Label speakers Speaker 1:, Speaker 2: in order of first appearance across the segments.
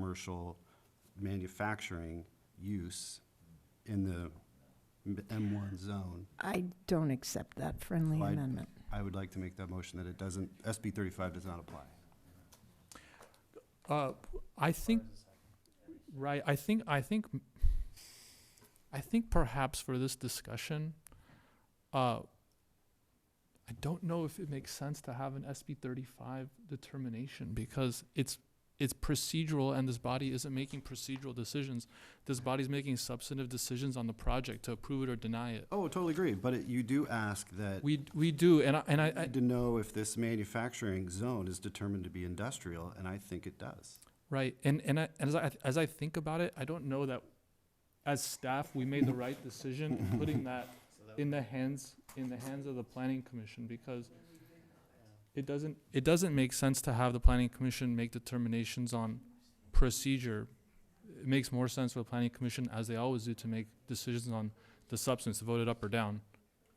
Speaker 1: commercial manufacturing use in the M1 zone.
Speaker 2: I don't accept that friendly
Speaker 1: So I-
Speaker 2: amendment.
Speaker 1: I would like to make that motion that it doesn't, SB 35 does not apply.
Speaker 3: Uh, I think, right, I think, I think, m- I think perhaps for this discussion, uh, I don't know if it makes sense to have an SB thirty-five determination because it's, it's procedural and this body isn't making procedural decisions. This body's making substantive decisions on the project to approve it or deny it.
Speaker 1: Oh, totally agree, but it- you do ask that,
Speaker 3: We, we do, and I, and I,
Speaker 1: you
Speaker 3: I-
Speaker 1: need to know if this manufacturing zone is determined to be industrial, and I think it does.
Speaker 3: Right, and and I, and as I as I think about it, I don't know that, as staff, we made the right decision in putting that in the hands in the hands of the planning commission because it doesn't it doesn't make sense to have the planning commission make determinations on procedure. It makes more sense for the planning commission, as they always do, to make decisions on the substance, vote it up or down,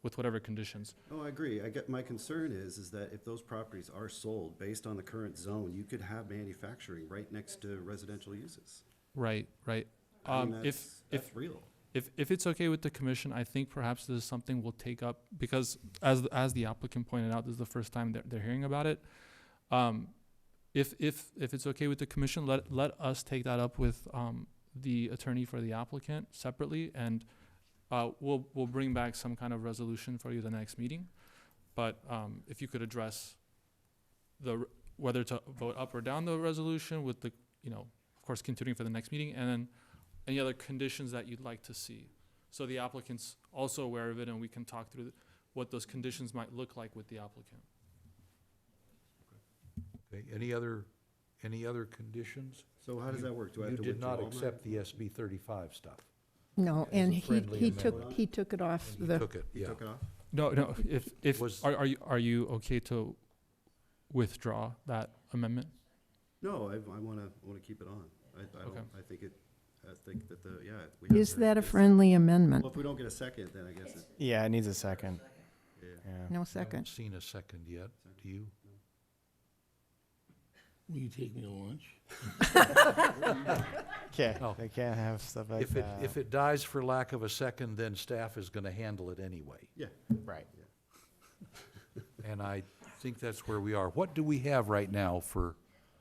Speaker 3: with whatever conditions.
Speaker 1: Oh, I agree. I get, my concern is, is that if those properties are sold based on the current zone, you could have manufacturing right next to residential uses.
Speaker 3: Right, right.
Speaker 1: I mean,
Speaker 3: Um, if
Speaker 1: that's-
Speaker 3: if
Speaker 1: That's real.
Speaker 3: If, if it's okay with the commission, I think perhaps this is something we'll take up because as, as the applicant pointed out, this is the first time they're, they're hearing about it. Um, if, if, if it's okay with the commission, let, let us take that up with, um, the attorney for the applicant separately and, uh, we'll, we'll bring back some kind of resolution for you the next meeting. But, um, if you could address the, r- whether to vote up or down the resolution with the, you know, of course, continuing for the next meeting and then any other conditions that you'd like to see. So the applicant's also aware of it, and we can talk through th- what those conditions might look like with the applicant.
Speaker 4: Okay, any other, any other conditions?
Speaker 1: So how does
Speaker 4: You-
Speaker 1: that work? Do I have to
Speaker 4: You did
Speaker 1: withdraw
Speaker 4: not
Speaker 1: my-
Speaker 4: accept the SB thirty-five stuff.
Speaker 2: No,
Speaker 4: As a
Speaker 2: and he,
Speaker 4: friendly
Speaker 2: he took,
Speaker 4: amendment.
Speaker 2: he took it off
Speaker 4: And you
Speaker 2: the,
Speaker 4: took it,
Speaker 1: You
Speaker 4: yeah.
Speaker 1: took it off?
Speaker 3: No, no, if, if,
Speaker 4: Was-
Speaker 3: are, are you, are you okay to withdraw that amendment?
Speaker 1: No, I, I wanna, I wanna keep it on. I, I don't,
Speaker 3: Okay.
Speaker 1: I think it, I think that the, yeah. we have
Speaker 2: is
Speaker 1: to-
Speaker 2: that a
Speaker 1: it's-
Speaker 2: friendly amendment?
Speaker 1: Well, if we don't get a second, then I guess it,
Speaker 5: Yeah, it needs a second.
Speaker 1: yeah.
Speaker 5: Yeah.
Speaker 2: No
Speaker 4: I haven't
Speaker 2: second.
Speaker 4: seen a second yet, do you?
Speaker 6: Will you take me to lunch?
Speaker 4: No.
Speaker 5: Can't, they can't have stuff like
Speaker 4: If it,
Speaker 5: that.
Speaker 4: if it dies for lack of a second, then staff is gonna handle it anyway.
Speaker 1: Yeah.
Speaker 5: Right.
Speaker 4: And I think that's where we are. What do we have right now for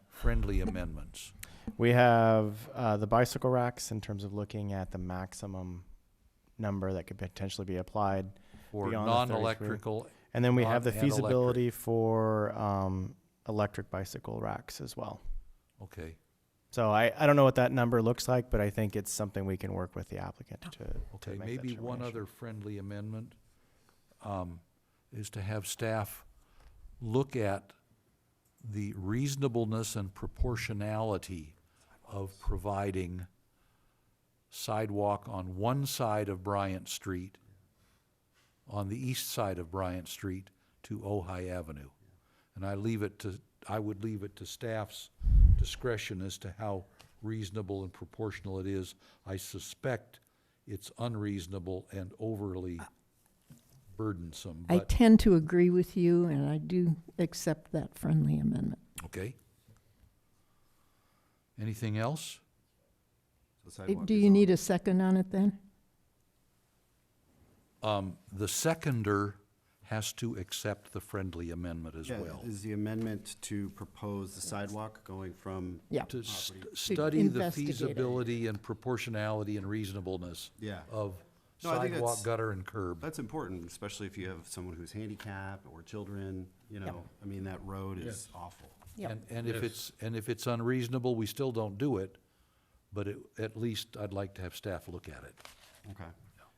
Speaker 4: friendly amendments?
Speaker 5: We have uh, the bicycle racks in terms of looking at the maximum number that could potentially be applied.
Speaker 4: For
Speaker 5: Beyond the 33.
Speaker 4: non-electrical,
Speaker 5: And then we
Speaker 4: Uh,
Speaker 5: have the
Speaker 4: and electric.
Speaker 5: feasibility for um, electric bicycle racks as well.
Speaker 4: okay,
Speaker 5: So I, I don't know what that number looks like, but I think it's something we can work with the applicant to. to
Speaker 4: okay,
Speaker 5: make that
Speaker 4: maybe one
Speaker 5: determination.
Speaker 4: other friendly amendment, um, is to have staff look at the reasonableness and proportionality of providing sidewalk on one side of Bryant Street, on the east side of Bryant Street to Ojai Avenue. And I leave it to, I would leave it to staff's discretion as to how reasonable and proportional it is. I suspect it's unreasonable and overly burdensome,
Speaker 2: I
Speaker 4: but,
Speaker 2: tend to agree with you, and I do accept that friendly amendment.
Speaker 4: okay? Anything else?
Speaker 1: So
Speaker 2: Uh,
Speaker 1: sidewalk
Speaker 2: Do
Speaker 1: is
Speaker 2: you
Speaker 1: on.
Speaker 2: need a second on it then?
Speaker 4: Um, the seconder has to accept the friendly amendment as
Speaker 1: Yeah,
Speaker 4: well.
Speaker 1: Is the amendment to propose the sidewalk going from,
Speaker 2: Yeah,
Speaker 4: To st-
Speaker 1: Property.
Speaker 4: study the
Speaker 2: investigate it.
Speaker 4: feasibility and proportionality and reasonableness
Speaker 1: yeah.
Speaker 4: of
Speaker 1: No, I think
Speaker 4: sidewalk,
Speaker 1: that's-
Speaker 4: gutter, and curb.
Speaker 1: That's important, especially if you have someone who's handicapped or children, you know, I mean, that road is awful.
Speaker 2: Yep.
Speaker 4: And, and if it's, and if it's unreasonable, we still don't do it, but it, at least I'd like to have staff look at it.
Speaker 1: Okay.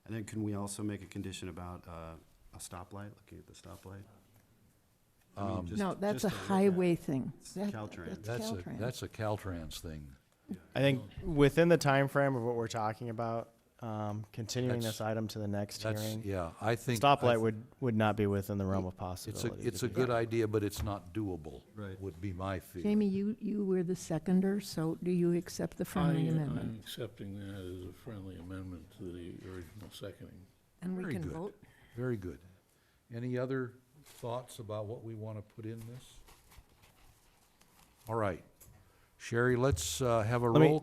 Speaker 1: And then can we also make a condition about, uh, a stoplight, looking at the stoplight? I
Speaker 4: Um,
Speaker 1: mean, just-
Speaker 2: No, that's
Speaker 1: just
Speaker 2: a
Speaker 1: to look at it.
Speaker 2: highway thing.
Speaker 1: It's
Speaker 2: That-
Speaker 1: Caltrans.
Speaker 4: That's a,
Speaker 2: Caltrans.
Speaker 4: that's a Caltrans thing.
Speaker 5: I think within the time frame of what we're talking about, um, continuing
Speaker 4: That's-
Speaker 5: this item to the next
Speaker 4: That's,
Speaker 5: hearing,
Speaker 4: yeah, I think. I
Speaker 5: stoplight would, would not be within the realm of
Speaker 4: It's a,
Speaker 5: possibility.
Speaker 4: it's a good idea, but it's not doable.
Speaker 1: Right.
Speaker 4: Would be my feeling.
Speaker 2: Jamie, you, you were the seconder, so do you accept the friendly
Speaker 4: uh,
Speaker 6: I- uh,
Speaker 2: amendment?
Speaker 6: I'm accepting that as a friendly amendment to the original seconding.
Speaker 2: And we
Speaker 4: very
Speaker 2: can
Speaker 4: good.
Speaker 2: vote?
Speaker 4: Very good. Any other thoughts about what we want to put in this? All right. uh,
Speaker 5: Sherry, let's uh, have a
Speaker 4: Let me-
Speaker 5: roll